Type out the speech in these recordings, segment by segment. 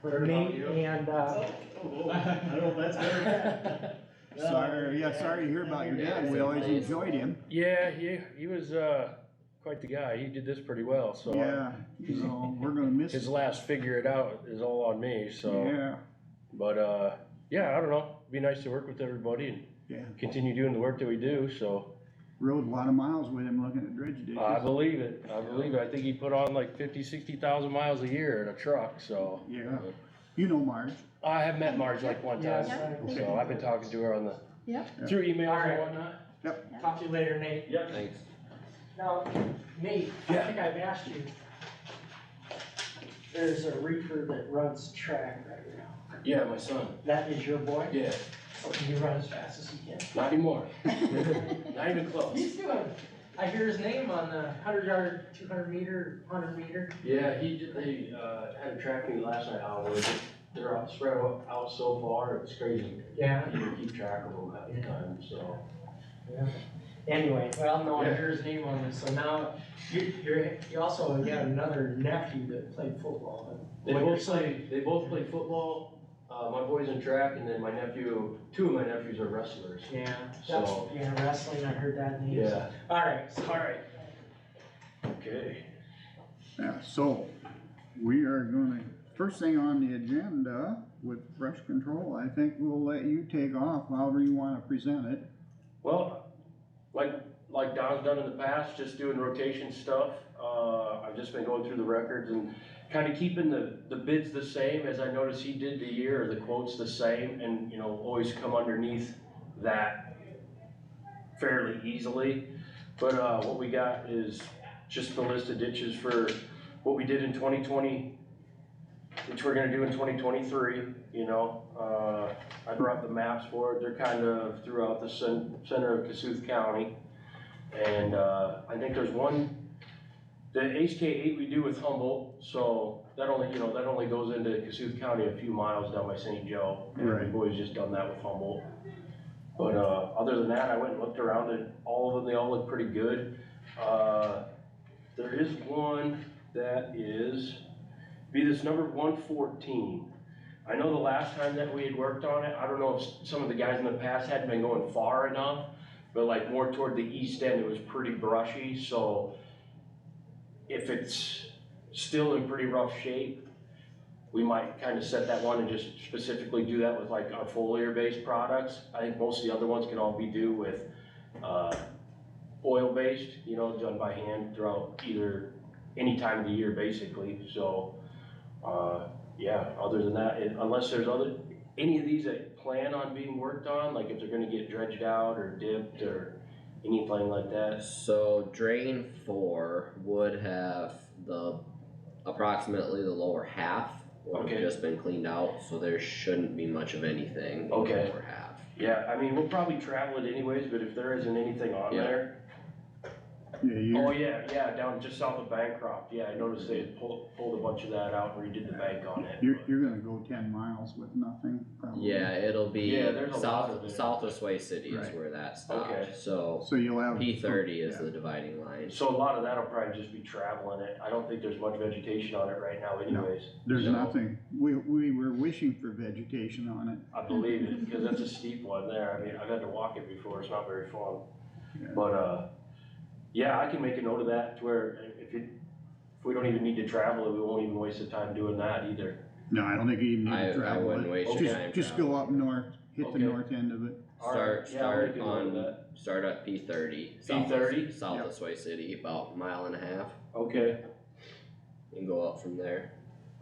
for Heard about me you. and, uh, I don't know if that's good or bad. Sorry, yeah, sorry to hear about your dad, we always enjoyed him, Yeah, he, he was, uh, quite the guy, he did this pretty well, so. yeah, you know, we're gonna miss His him, last figure it out is all on me, so, yeah, but, uh, yeah, I don't know, be nice to work with everybody and yeah, continue doing the work that we do, so. rode a lot of miles with him looking at dredge I ditches, believe it, I believe it, I think he put on like fifty, sixty thousand miles a year in a truck, so. yeah, you know Marge, I have met Marge like one time, yes, I- so I've been talking to her on the, Yep. through emails and Alright. whatnot. talk to you later, Nate. Yep. Thanks. Now, Nate, I think I've asked you. There's a reefer that runs track right now. Yeah, my son, That is your boy? yeah, So can you run as fast as he can? not anymore, Um, not even close. He's doing, I hear his name on the hundred yard, two hundred meter, hundred meter. Yeah, he did, they, uh, had a track meet last night, how was it? They're out, spread out out so far, it's crazy. Yeah. You can keep track of them half the time, so. Anyway, well, no, I Yeah. hear his name on this, so now, you, you're, you also got another nephew that played football. They both play, they both play football, uh, my boy's in track, and then my nephew, two of my nephews are wrestlers, Yeah, that's, so, yeah, wrestling, I heard that name. yeah. Alright, so- alright, Okay. yeah, so, we are gonna, first thing on the agenda with brush control, I think we'll let you take off however you wanna present it, Well, like, like Don's done in the past, just doing rotation stuff, uh, I've just been going through the records and kind of keeping the, the bids the same, as I noticed he did the year, the quotes the same, and, you know, always come underneath that fairly easily. But, uh, what we got is just the list of ditches for what we did in twenty twenty, which we're gonna do in twenty twenty-three, you know, uh, I brought the maps for it, they're kind of throughout the cen- center of Cassuth County. And, uh, I think there's one, the HK eight we do with Humboldt, so that only, you know, that only goes into Cassuth County a few miles down by St. Joe. And Right. We've always just done that with Humboldt. But, uh, other than that, I went and looked around at all of them, they all look pretty good. Uh, there is one that is, be this number one fourteen. I know the last time that we had worked on it, I don't know if s- some of the guys in the past hadn't been going far enough, but like more toward the east end, it was pretty brushy, so if it's still in pretty rough shape, we might kind of set that one and just specifically do that with like our foliar-based products. I think most of the other ones can all be do with, uh, oil-based, you know, done by hand throughout either, any time of the year basically, so, uh, yeah, other than that, it- unless there's other, any of these that plan on being worked on, like if they're gonna get dredged out or dipped or anything like that. So drain four would have the approximately the lower half would Okay. have just been cleaned out, so there shouldn't be much of anything in the Okay. lower half. Yeah, I mean, we'll probably travel it anyways, but if there isn't anything on Yeah. there. yeah, you. Oh, yeah, yeah, down just south of Bancroft, yeah, I noticed they had pulled, pulled a bunch of that out and redid the bank on it. You're, but- you're gonna go ten miles with nothing, probably. Yeah, it'll be Yeah, there's a lot of south it. south of Sway City is Right. where that stopped. Okay. So So you'll have. P thirty is Yeah. the dividing line. So a lot of that'll probably just be traveling it, I don't think there's much vegetation on it right now anyways. There's So, nothing, we, we were wishing for vegetation on it. I believe it, because that's a steep one there, I mean, I've had to walk it before, it's not very fun. Yeah. But, uh, yeah, I can make a note of that to where if it, if we don't even need to travel it, we won't even waste the time doing that either. No, I don't think you even need I, to I travel wouldn't it. waste your time. Just, just go up traveling. north, hit the Okay. north end of it. All right, Start- yeah, I'll make start a note of on- that. Start at P thirty. P30? South Yep. of Sway City, about a mile and a half, Okay, and go up from there.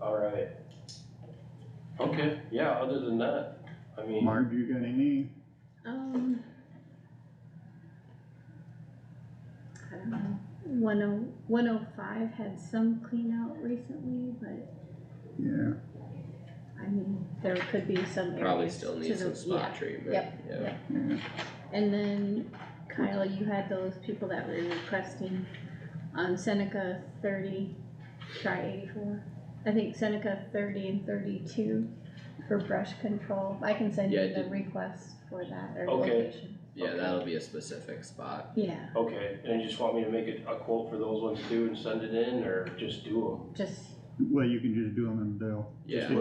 all right. Okay, yeah, other than that, I mean, Marge, you got any? Um. I don't know. One oh, one oh five had some clean out recently, but Yeah, I mean, there could be some areas. Probably still to needs the- some spot yeah. treatment. Yep, Yeah. yep. yeah. And then Kyle, you had those people that were requesting on Seneca thirty, try eighty-four. I think Seneca thirty and thirty-two for brush control. I can send Yeah, I you the did- request for that or Okay. location. Yeah, Okay. that'll be a specific spot. Yeah, okay, and you just want me to make a, a quote for those ones too and send it in, or just do them? just Well, you can just do them in Dale. Yeah. Just